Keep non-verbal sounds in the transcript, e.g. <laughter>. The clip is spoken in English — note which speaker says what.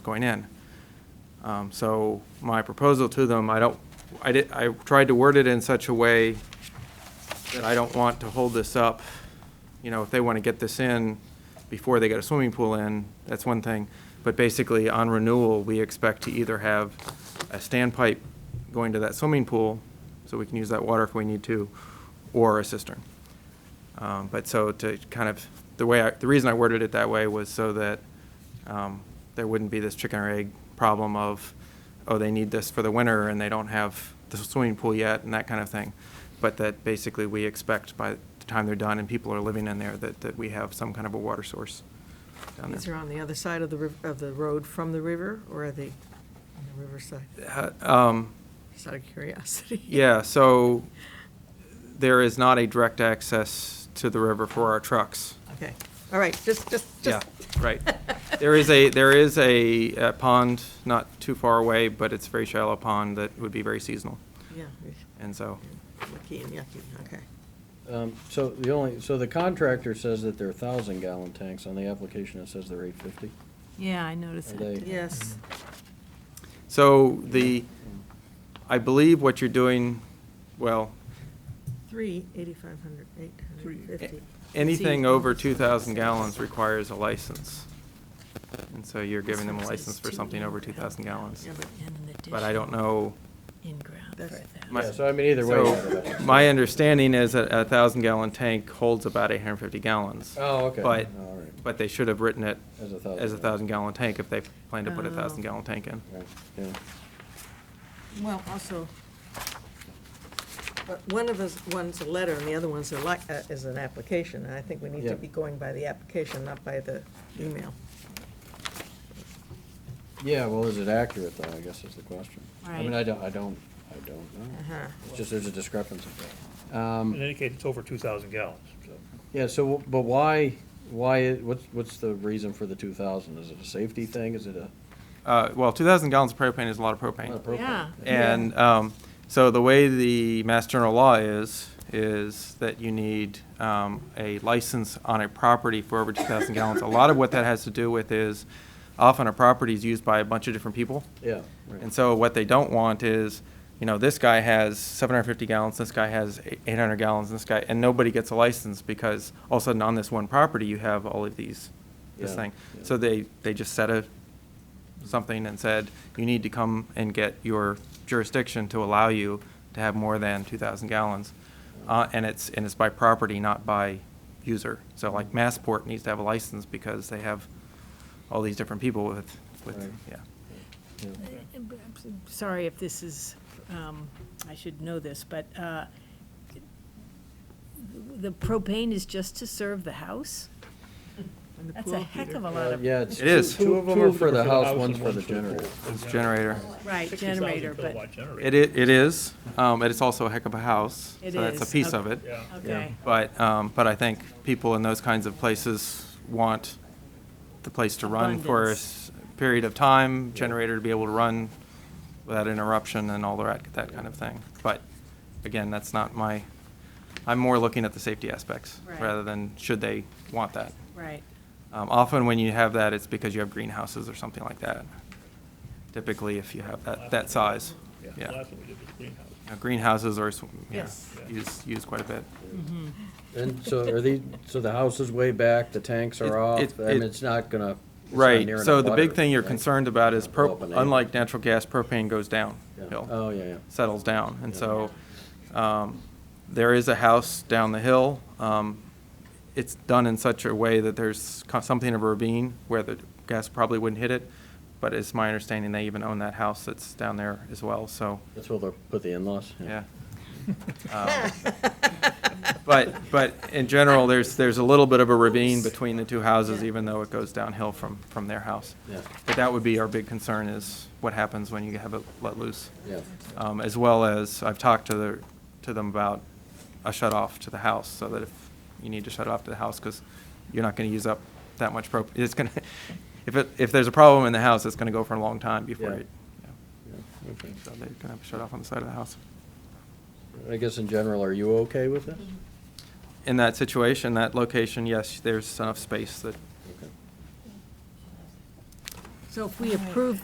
Speaker 1: going in. Um, So my proposal to them, I don't, I did, I tried to word it in such a way that I don't want to hold this up. You know, if they want to get this in before they get a swimming pool in, that's one thing. But basically, on renewal, we expect to either have a standpipe going to that swimming pool, so we can use that water if we need to, or a cistern. Um, But so to kind of, the way, I- the reason I worded it that way was so that um, there wouldn't be this chicken or egg problem of, oh, they need this for the winter and they don't have the swimming pool yet and that kind of thing. But that basically we expect by the time they're done and people are living in there, that, that we have some kind of a water source down
Speaker 2: These are
Speaker 1: there.
Speaker 2: on the other side of the, riv- of the road from the river, or are they on the riverside?
Speaker 1: Um,
Speaker 2: Just out of curiosity. <laughs>
Speaker 1: Yeah, so there is not a direct access to the river for our trucks.
Speaker 2: Okay, all right, just, just,
Speaker 1: Yeah,
Speaker 2: just.
Speaker 1: right. There is a, there is a uh, pond not too far away, but it's a very shallow pond that would be very seasonal.
Speaker 2: <laughs> Yeah.
Speaker 1: And so,
Speaker 2: Yucky and yucky, okay.
Speaker 3: Um, So the only, so the contractor says that they're thousand gallon tanks, on the application it says they're eight fifty.
Speaker 4: Yeah, I noticed
Speaker 3: Are
Speaker 4: that.
Speaker 3: they-
Speaker 4: too.
Speaker 2: Yes,
Speaker 1: so the, I believe what you're doing, well,
Speaker 2: three, eighty-five hundred, eight hundred and
Speaker 1: a-
Speaker 2: fifty.
Speaker 1: anything over 2,000 gallons requires a license. And so you're giving them a
Speaker 4: This one says
Speaker 1: license for
Speaker 4: two
Speaker 1: something over 2,000
Speaker 4: in-ground
Speaker 1: gallons.
Speaker 2: Yeah, but-
Speaker 4: and an
Speaker 1: But I don't
Speaker 4: additional
Speaker 1: know.
Speaker 4: In-ground for a
Speaker 2: That's-
Speaker 4: thousand.
Speaker 1: My-
Speaker 3: Yeah, so I mean, either way.
Speaker 1: So,
Speaker 3: it's about-
Speaker 1: My understanding is that a thousand gallon tank holds about eight hundred and fifty gallons.
Speaker 3: Oh, okay.
Speaker 1: But,
Speaker 3: All right.
Speaker 1: but they should have written it
Speaker 3: As a thousand
Speaker 1: as a
Speaker 3: gallon.
Speaker 1: thousand gallon tank if they plan to put a
Speaker 2: Oh.
Speaker 1: thousand gallon tank in.
Speaker 3: Right, yeah.
Speaker 2: Well, also, but one of us, one's a letter and the other one's a li, uh, is an application, and I think we need
Speaker 3: Yeah.
Speaker 2: to be going by the application, not by the email.
Speaker 3: Yeah, well, is it accurate though, I guess is the question. I mean,
Speaker 4: Right.
Speaker 3: I don't, I don't, I don't know.
Speaker 2: Uh-huh.
Speaker 3: It's just, there's a discrepancy.
Speaker 5: In
Speaker 3: Um,
Speaker 5: any case, it's over 2,000 gallons, so.
Speaker 3: Yeah, so, but why, why, i- what's, what's the reason for the two thousand? Is it a safety thing? Is it a?
Speaker 1: Uh, well, two thousand gallons of propane is a lot of
Speaker 3: not a
Speaker 1: propane.
Speaker 3: propane?
Speaker 4: Yeah.
Speaker 1: And, um, so the way the Mass General law is, is that you need, um, a license on a property for over two thousand gallons. A lot of what that has to do with is often a property is used by a bunch of different people.
Speaker 3: Yeah. right.
Speaker 1: And so what they don't want is, you know, this guy has 750 gallons, this guy has eight- 800 gallons, and this guy, and nobody gets a license because all of a sudden on this one property, you have all of these, this
Speaker 3: Yeah,
Speaker 1: thing.
Speaker 3: yeah.
Speaker 1: So they, they just set a, something and said, you need to come and get your jurisdiction to allow you to have more than 2,000 gallons. Uh, and it's, and it's by property, not by user. So like Massport needs to have a license because they have all these different people with, with,
Speaker 3: Right.
Speaker 1: yeah.
Speaker 3: Yeah.
Speaker 4: I'm Sorry if this is, um, I should know this, but uh, the propane is just to serve the house?
Speaker 2: And the
Speaker 4: That's a
Speaker 2: pool
Speaker 4: heck
Speaker 2: heater.
Speaker 4: of a
Speaker 3: Uh,
Speaker 4: lot of.
Speaker 3: Yeah, it's.
Speaker 1: It is.
Speaker 3: Two of them are for the house,
Speaker 5: and
Speaker 3: one's for the
Speaker 5: pool.
Speaker 3: generator.
Speaker 1: It's generator.
Speaker 4: Right,
Speaker 5: 60,000
Speaker 4: generator, but,
Speaker 5: kilowatt generator.
Speaker 1: It, i- it is, um, and it's also a heck of a house.
Speaker 4: It
Speaker 1: So that's
Speaker 4: is,
Speaker 1: a piece
Speaker 4: okay.
Speaker 1: of it.
Speaker 5: Yeah.
Speaker 4: okay.
Speaker 1: But, um, but I think people in those kinds of places want the place to run for a s- period of time, generator to be able to run without interruption and all that, that kind of thing. But again, that's not my, I'm more looking at the safety aspects
Speaker 4: Right.
Speaker 1: rather than should they want that.
Speaker 4: Right,
Speaker 1: Um, often when you have that, it's because you have greenhouses or something like that. Typically, if you have that, that size,
Speaker 5: Yeah,
Speaker 1: yeah.
Speaker 5: last one we did was greenhouse.
Speaker 1: Now, Greenhouses are, sw- yeah,
Speaker 4: Yes.
Speaker 1: used, used quite a bit.
Speaker 4: Hmm.
Speaker 3: And so are these,
Speaker 4: <laughs>
Speaker 3: so the house is way back, the tanks
Speaker 1: It-
Speaker 3: are off,
Speaker 1: it-
Speaker 3: I mean,
Speaker 1: it-
Speaker 3: it's not gonna. it's not near
Speaker 1: Right,
Speaker 3: an
Speaker 1: so the big
Speaker 3: abutter,
Speaker 1: thing you're
Speaker 3: right?
Speaker 1: concerned about is pro,
Speaker 3: Open air.
Speaker 1: unlike natural gas, propane goes
Speaker 3: Yeah.
Speaker 1: downhill,
Speaker 3: Oh, yeah, yeah.
Speaker 1: settles down. And
Speaker 3: Yeah.
Speaker 1: so, um, there is a house down the hill. Um, It's done in such a way that there's co- something of a ravine where the gas probably wouldn't hit it. But it's my understanding they even own that house that's down there as well, so,
Speaker 3: That's where they'll put the in-laws. <laughs>
Speaker 1: yeah.
Speaker 2: <laughs>
Speaker 1: Um, But, but in general, there's, there's a little bit of a ravine between the two houses, even though it goes downhill from, from their house.
Speaker 3: Yeah.
Speaker 1: But that would be our big concern is what happens when you have it let loose.
Speaker 3: Yeah.
Speaker 1: Um, as well as, I've talked to the, to them about a shut off to the house, so that if you need to shut off to the house, because you're not gonna use up that much prop, <laughs> it's gonna, if it, if there's a problem in the house, it's gonna go for a long time before
Speaker 3: Yeah.
Speaker 1: it,
Speaker 3: Yeah, okay.
Speaker 1: yeah. so they're gonna have a shut off on the side of the house.
Speaker 3: I guess in general, are you okay with this?
Speaker 1: In that situation, that location, yes, there's enough space that
Speaker 3: Okay.
Speaker 4: So if we approve